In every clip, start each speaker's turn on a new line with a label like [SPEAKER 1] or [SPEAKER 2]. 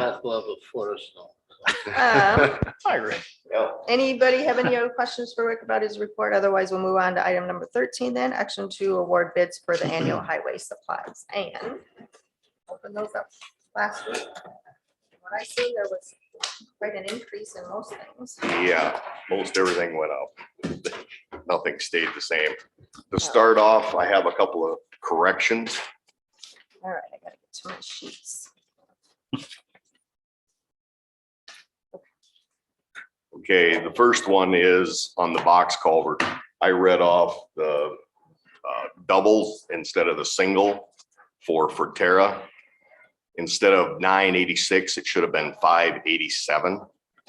[SPEAKER 1] top level for us now.
[SPEAKER 2] Um,
[SPEAKER 3] Hiring.
[SPEAKER 2] Anybody have any other questions for Rick about his report? Otherwise, we'll move on to item number thirteen then, action to award bids for the annual highway supplies and open those up last week. When I see there was quite an increase in most things.
[SPEAKER 4] Yeah, most everything went up. Nothing stayed the same. To start off, I have a couple of corrections.
[SPEAKER 2] All right, I gotta get to my sheets.
[SPEAKER 4] Okay, the first one is on the box culvert. I read off the uh, doubles instead of the single for Forterra. Instead of nine eighty-six, it should have been five eighty-seven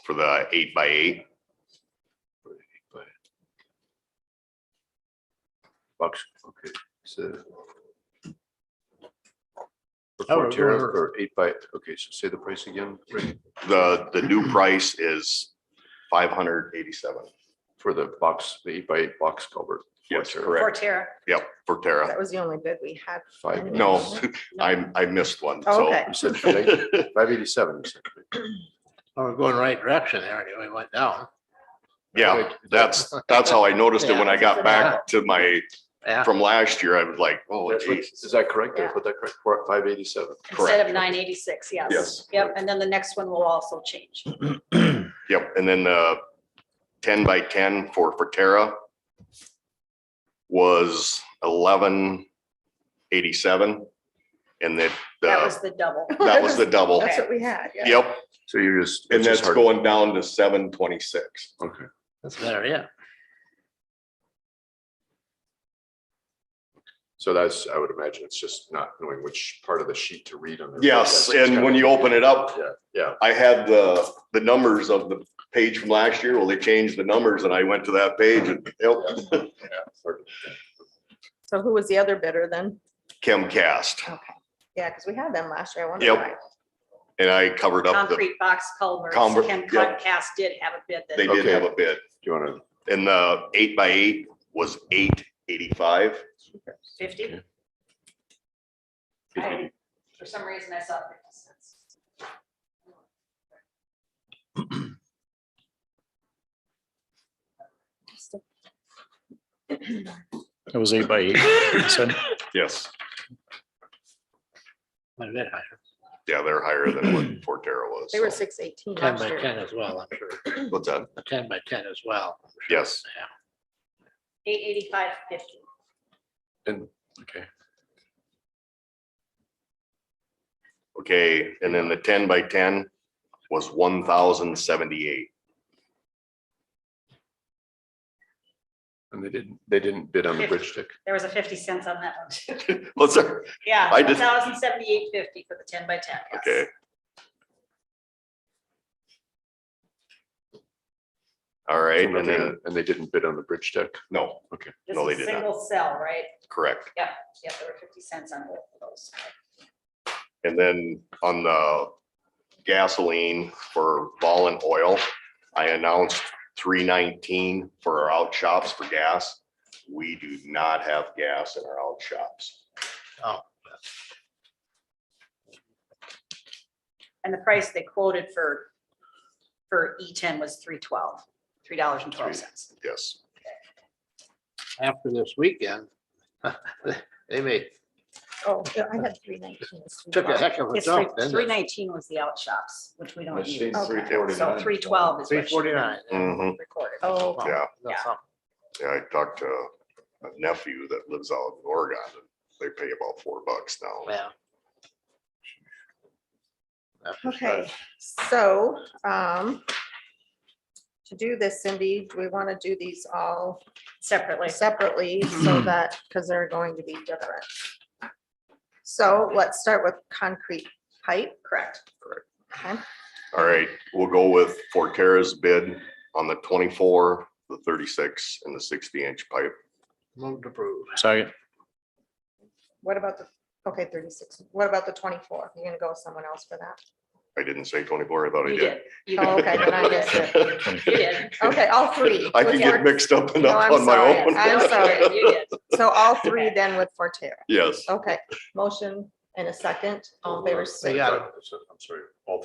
[SPEAKER 4] for the eight by eight.
[SPEAKER 1] Bucks, okay, so. The
[SPEAKER 3] Oh,
[SPEAKER 1] four tier
[SPEAKER 3] or-
[SPEAKER 1] or eight by, okay, so say the price again, Rick,
[SPEAKER 4] The, the new price is five hundred eighty-seven.
[SPEAKER 1] for the box, the eight by eight box culvert.
[SPEAKER 4] Yes,
[SPEAKER 1] Four tier,
[SPEAKER 4] correct.
[SPEAKER 2] Terra.
[SPEAKER 4] Yep, Forterra.
[SPEAKER 2] That was the only bid we had.
[SPEAKER 1] Five.
[SPEAKER 4] No, I, I missed one,
[SPEAKER 2] Oh,
[SPEAKER 4] so.
[SPEAKER 2] okay.
[SPEAKER 1] You said five eighty-seven.
[SPEAKER 3] Well, We're going right direction there. anyway, We went down.
[SPEAKER 4] Yeah, that's, that's how I noticed it when I got back to my,
[SPEAKER 3] Yeah.
[SPEAKER 4] from last year. I was like, oh
[SPEAKER 1] That's what-
[SPEAKER 4] geez.
[SPEAKER 1] Is that correct? Did I
[SPEAKER 5] Yeah.
[SPEAKER 1] put that correct? Four, five eighty-seven.
[SPEAKER 5] Instead of
[SPEAKER 4] Correct.
[SPEAKER 5] nine eighty-six, yes.
[SPEAKER 4] Yes.
[SPEAKER 5] Yep, and then the next one will also change.
[SPEAKER 4] Yep, and then the ten by ten for Forterra was eleven eighty-seven. And that,
[SPEAKER 5] That
[SPEAKER 4] uh,
[SPEAKER 5] was the double.
[SPEAKER 4] that was the double.
[SPEAKER 2] That's what we had. yeah.
[SPEAKER 4] Yep,
[SPEAKER 1] So you're just.
[SPEAKER 4] and
[SPEAKER 1] it's just
[SPEAKER 4] that's
[SPEAKER 1] hard-
[SPEAKER 4] going down to seven twenty-six.
[SPEAKER 1] Okay,
[SPEAKER 3] That's better, yeah.
[SPEAKER 1] so that's, I would imagine it's just not knowing which part of the sheet to read on. the-
[SPEAKER 4] Yes,
[SPEAKER 1] That's
[SPEAKER 4] and
[SPEAKER 1] kinda-
[SPEAKER 4] when you open it up,
[SPEAKER 1] Yeah, yeah,
[SPEAKER 4] I had the, the numbers of the page from last year. Well, they changed the numbers and I went to that page and, yep,
[SPEAKER 1] yeah. sort of.
[SPEAKER 2] So who was the other bidder then?
[SPEAKER 4] Chemcast.
[SPEAKER 2] Okay. Yeah, because we had them last year. I wonder
[SPEAKER 4] Yep.
[SPEAKER 2] why.
[SPEAKER 4] And I covered up the,
[SPEAKER 5] Concrete box culverts,
[SPEAKER 4] Culvert,
[SPEAKER 5] Ken
[SPEAKER 4] yep.
[SPEAKER 5] Comcast did have a bid
[SPEAKER 4] they
[SPEAKER 5] that,
[SPEAKER 4] did have a bid.
[SPEAKER 1] Do you want to?
[SPEAKER 4] And the eight by eight was eight eighty-five.
[SPEAKER 5] fifty. I- For some reason, I saw fifty cents.
[SPEAKER 6] It was eight by eight. you said?
[SPEAKER 4] Yes.
[SPEAKER 3] Quite a bit higher.
[SPEAKER 4] Yeah, they're higher than what Forterra was.
[SPEAKER 2] They were
[SPEAKER 4] so.
[SPEAKER 2] six eighteen
[SPEAKER 3] Ten
[SPEAKER 2] last
[SPEAKER 3] by
[SPEAKER 2] year.
[SPEAKER 3] ten as well, I'm sure.
[SPEAKER 4] What's that?
[SPEAKER 3] Ten by ten as well.
[SPEAKER 4] Yes.
[SPEAKER 5] Eight eighty-five fifty.
[SPEAKER 1] And, okay,
[SPEAKER 4] Okay, and then the ten by ten was one thousand seventy-eight.
[SPEAKER 1] and they didn't, they didn't bid on the bridge stick.
[SPEAKER 5] There was a fifty cents on that one too.
[SPEAKER 4] What's that?
[SPEAKER 5] Yeah,
[SPEAKER 4] I
[SPEAKER 5] one
[SPEAKER 4] just-
[SPEAKER 5] thousand seventy-eight fifty for the ten by ten. yes.
[SPEAKER 4] Okay. All right,
[SPEAKER 1] So
[SPEAKER 4] and
[SPEAKER 1] nothing
[SPEAKER 4] then,
[SPEAKER 1] on- And they didn't bid on the bridge deck.
[SPEAKER 4] no,
[SPEAKER 5] This
[SPEAKER 4] No, they
[SPEAKER 5] is
[SPEAKER 4] did not.
[SPEAKER 5] single cell, right?
[SPEAKER 4] correct.
[SPEAKER 5] Yeah, there were fifty cents on both of those.
[SPEAKER 4] And then on the gasoline for vol and oil, I announced three nineteen for our out shops for gas. We do not have gas in our out shops.
[SPEAKER 5] And the price they quoted for, for E ten was three twelve, three dollars and twelve cents.
[SPEAKER 4] Yes,
[SPEAKER 3] After this weekend, they may,
[SPEAKER 2] Oh, yeah, I had three nineteen.
[SPEAKER 3] took a heck of a
[SPEAKER 5] It's three,
[SPEAKER 3] jump, didn't
[SPEAKER 5] three
[SPEAKER 3] they?
[SPEAKER 5] nineteen was the out shops, which we don't
[SPEAKER 1] Let's
[SPEAKER 5] use.
[SPEAKER 1] see,
[SPEAKER 2] Okay.
[SPEAKER 1] 349.
[SPEAKER 5] So three twelve is.
[SPEAKER 3] Three
[SPEAKER 5] what she
[SPEAKER 3] forty-nine.
[SPEAKER 4] Mhm.
[SPEAKER 5] Recorded.
[SPEAKER 2] Oh, okay.
[SPEAKER 4] yeah.
[SPEAKER 3] That's something.
[SPEAKER 4] Yeah, I talked to a nephew that lives out in Oregon. and They pay about four bucks now.
[SPEAKER 3] Yeah. That's just
[SPEAKER 2] Okay, so, um, to do this, Cindy, we want to do these all
[SPEAKER 5] Separately.
[SPEAKER 2] separately
[SPEAKER 3] Hmm.
[SPEAKER 2] so that, because they're going to be different. So let's start with concrete pipe. Correct. Okay,
[SPEAKER 4] All right, we'll go with Forterra's bid on the twenty-four, the thirty-six and the sixty-inch pipe.
[SPEAKER 3] Move to approve.
[SPEAKER 6] Second,
[SPEAKER 2] what about the, okay, thirty-six, what about the twenty-four? You're gonna go with someone else for that?
[SPEAKER 4] I didn't say twenty-four, I thought I
[SPEAKER 5] You
[SPEAKER 4] did.
[SPEAKER 5] did. You
[SPEAKER 2] Oh, okay, then I missed
[SPEAKER 5] did. You did.
[SPEAKER 2] Okay, all three.
[SPEAKER 4] I can
[SPEAKER 2] with
[SPEAKER 4] get
[SPEAKER 2] Fort-
[SPEAKER 4] mixed up
[SPEAKER 2] No,
[SPEAKER 4] enough
[SPEAKER 2] I'm
[SPEAKER 4] on my
[SPEAKER 2] sorry,
[SPEAKER 4] own.
[SPEAKER 2] I'm sorry. Oh,
[SPEAKER 5] You did.
[SPEAKER 2] So all three then with Forterra.
[SPEAKER 4] Yes,
[SPEAKER 2] Okay, motion and a second. All in favor, say
[SPEAKER 3] Yeah.
[SPEAKER 1] I'm sorry,